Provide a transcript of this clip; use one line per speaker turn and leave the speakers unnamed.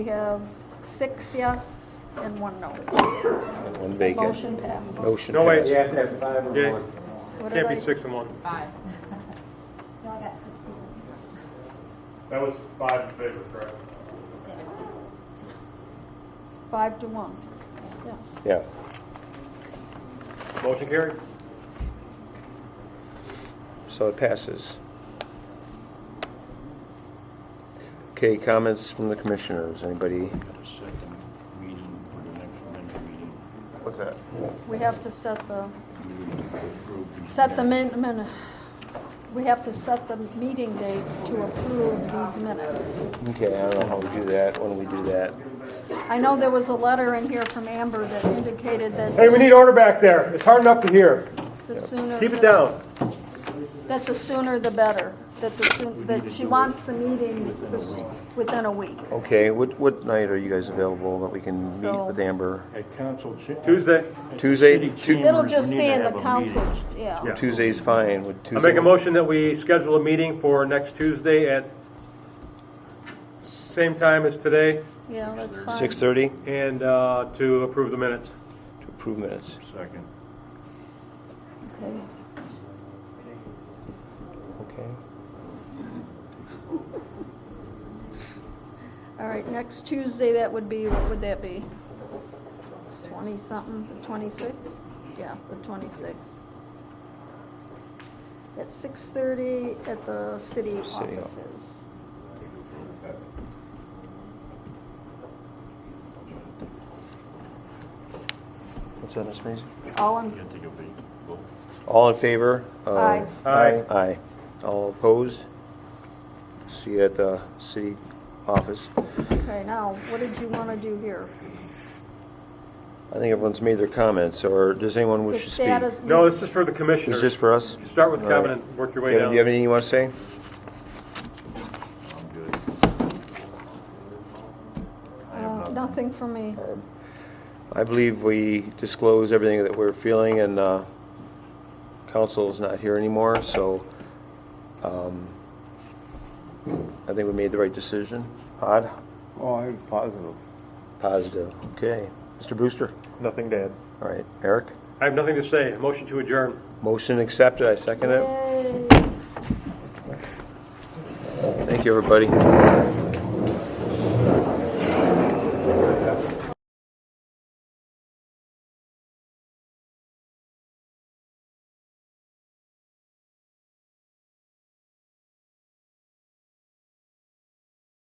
We have six yes and one no.
One vacant.
Motion passed.
Motion
No, wait,
passed.
You have to have five or
Yeah,
more.
What
Can't
did I-
be six and one.
Y'all got six people.
That was five in favor, correct?
Five to one. Yeah.
Yeah.
Motion carried.
So it passes. Okay, comments from the commissioners, anybody?
a second meeting for the next amendment meeting.
What's that?
We have to set the,
We would approve these
set the
minutes.
min, min- we have to set the meeting date to approve these minutes.
Okay, I don't know how we do that, when we do that.
I know there was a letter in here from Amber that indicated
Hey,
that
we need order back there. It's hard enough to hear.
the sooner.
Keep it
the-
down.
That the sooner the better, that the soon, that she wants the meeting this- within a week.
Okay, what, what night are you guys available that we can meet
So-
with Amber?
At council. cha-
Tuesday.
at the
Tuesday,
city
Tu-
chambers,
It'll
we
just
need
be
to
in the
have a meeting.
council, yeah.
Yeah.
Tuesday's fine, would
I
Tuesday?
make a motion that we schedule a meeting for next Tuesday at same time as today
Yeah, that's fine.
Six thirty,
and uh, to approve the minutes.
to approve minutes.
Second.
Okay.
Okay.
All right, next Tuesday, that would be, what would that be? Twenty-something, the twenty-sixth? Yeah, the twenty-sixth. At six-thirty at the city
City Hall.
offices.
What's that, Ms. Mason?
All in,
You think it'll be, well,
All in favor? of-
Aye.
Aye.
Aye. All opposed? See you at the city office.
okay, now, what did you want to do here?
I think everyone's made their comments, or does anyone
The
wish to speak?
status-
No, this is for the
Is
commissioners.
this for us?
Start with
All right.
Kevin and work your way
Kevin, do you have
down.
anything you want to say?
I'm good. I have
Uh, Nothing for me.
I believe we disclose everything that we're feeling, and uh, council's not here anymore, so um, I think we made the right decision. Odd?
Oh, I'm positive.
Positive. Okay. Mr. Brewster?
Nothing, Dad.
All right. Eric?
I have nothing to say. Motion to adjourn.
Motion accepted. I second it.
Yay.
Thank you, everybody.